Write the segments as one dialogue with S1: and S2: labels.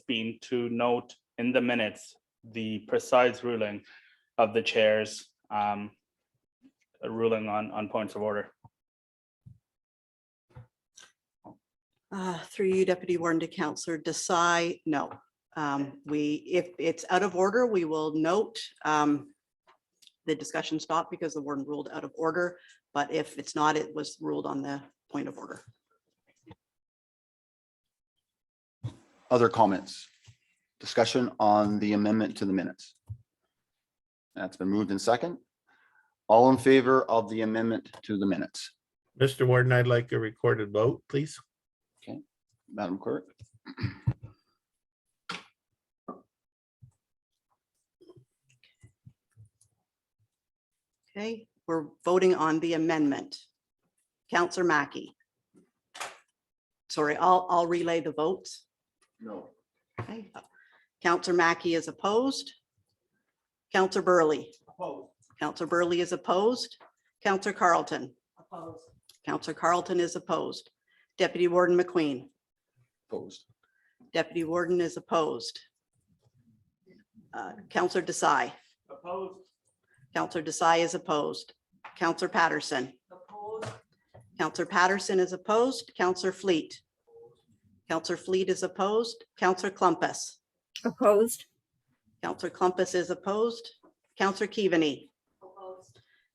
S1: been to note in the minutes the precise ruling of the chairs, um, ruling on, on points of order.
S2: Uh, Through you, Deputy Warden to Counselor Desai, no. Um, We, if it's out of order, we will note um, the discussion stopped because the warden ruled out of order, but if it's not, it was ruled on the point of order.
S3: Other comments? Discussion on the amendment to the minutes? That's been moved in second. All in favor of the amendment to the minutes,
S4: Mr. Warden, I'd like a recorded vote, please.
S3: Madam Clerk?
S2: Okay, we're voting on the amendment. Counselor Mackey. Sorry, I'll, I'll relay the votes.
S3: No.
S2: Okay. Counselor Mackey is opposed. Counselor Burley. Counselor Burley is opposed. Counselor Carlton. Opposed. Counselor Carlton is opposed. Deputy Warden McQueen.
S3: Opposed.
S2: Deputy Warden is opposed. Uh, Counselor Desai. Opposed. Counselor Desai is opposed. Counselor Patterson. Opposed. Counselor Patterson is opposed. Counselor Fleet. Counselor Fleet is opposed. Counselor Clumpus.
S5: Opposed?
S2: Counselor Clumpus is opposed. Counselor Keaveney.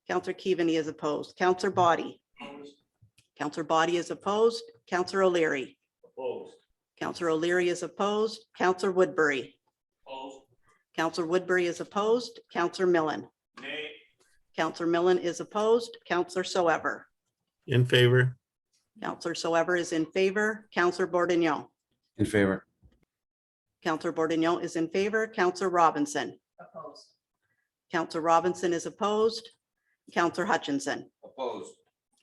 S2: Counselor Keaveney is opposed. Counselor Body. Counselor Body is opposed. Counselor O'Leary. Counselor O'Leary is opposed. Counselor Woodbury. Counselor Woodbury is opposed. Counselor Millen. Nay. Counselor Millen is opposed. Counselor Soever.
S4: In favor,
S2: Counselor Soever is in favor. Counselor Bordignon.
S6: In favor,
S2: Counselor Bordignon is in favor. Counselor Robinson. Opposed. Counselor Robinson is opposed. Counselor Hutchinson. Opposed.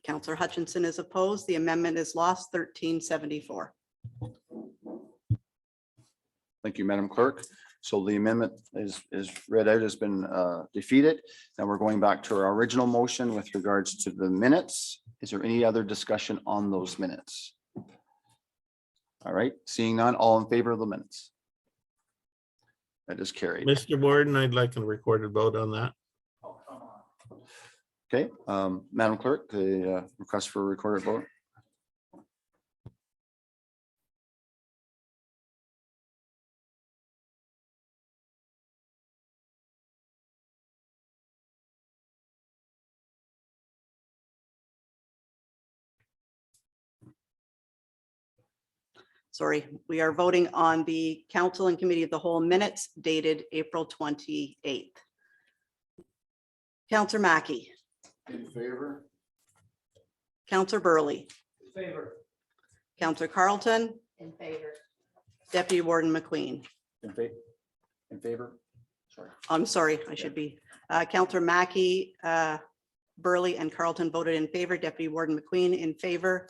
S2: Counselor Hutchinson is opposed. The amendment is lost thirteen seventy-four.
S3: Thank you, Madam Clerk. So the amendment is, is read out, has been uh, defeated. Now we're going back to our original motion with regards to the minutes. Is there any other discussion on those minutes? All right, seeing none, all in favor of the minutes? That is carried.
S4: Mr. Warden, I'd like a recorded vote on that.
S3: Okay, um, Madam Clerk, the uh, request for a recorded vote.
S2: Sorry, we are voting on the council and committee of the whole minutes dated April twenty-eighth. Counselor Mackey,
S3: In favor.
S2: Counselor Burley. Favor. Counselor Carlton. In favor. Deputy Warden McQueen. Oh,
S3: In favor. In favor. Sorry.
S2: I'm sorry, I should be. Uh, Counselor Mackey, uh, Burley and Carlton voted in favor. Deputy Warden McQueen in favor.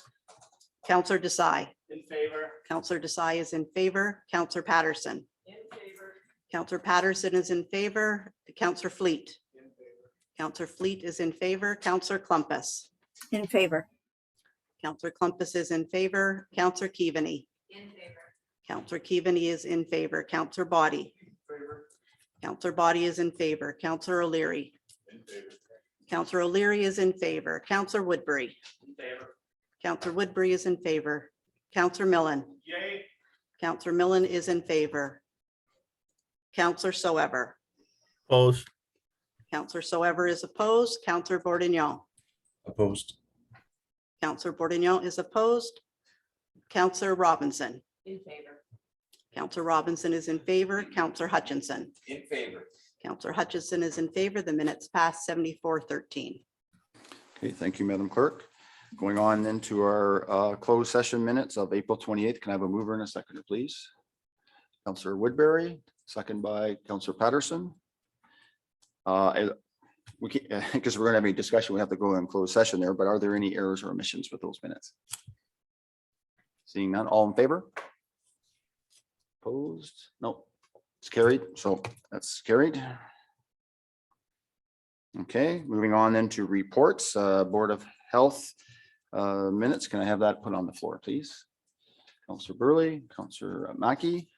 S2: Counselor Desai.
S1: In favor.
S2: Counselor Desai is in favor. Counselor Patterson. In favor. Counselor Patterson is in favor. Counselor Fleet. Counselor Fleet is in favor. Counselor Clumpus.
S5: In favor?
S2: Counselor Clumpus is in favor. Counselor Keaveney. In favor. Counselor Keaveney is in favor. Counselor Body. Counselor Body is in favor. Counselor O'Leary. Counselor O'Leary is in favor. Counselor Woodbury. Counselor Woodbury is in favor. Counselor Millen.
S1: Yay.
S2: Counselor Millen is in favor. Counselor Soever.
S4: Opposed,
S2: Counselor Soever is opposed. Counselor Bordignon.
S6: opposed,
S2: Counselor Bordignon is opposed. Counselor Robinson. In favor. Counselor Robinson is in favor. Counselor Hutchinson.
S7: In favor.
S2: Counselor Hutchinson is in favor. The minutes pass seventy-four thirteen.
S3: Okay, thank you, Madam Clerk. Going on then to our uh, closed session minutes of April twenty-eighth. Can I have a mover and a seconder, please? Counselor Woodbury, second by Counselor Patterson. Uh, I- We can't, because we're gonna have a discussion, we have to go in closed session there, but are there any errors or omissions with those minutes? Seeing none, all in favor? Opposed? No, it's carried, so that's carried. Okay, moving on then to reports, uh, Board of Health uh, minutes. Can I have that put on the floor, please? Counselor Burley, Counselor Mackey,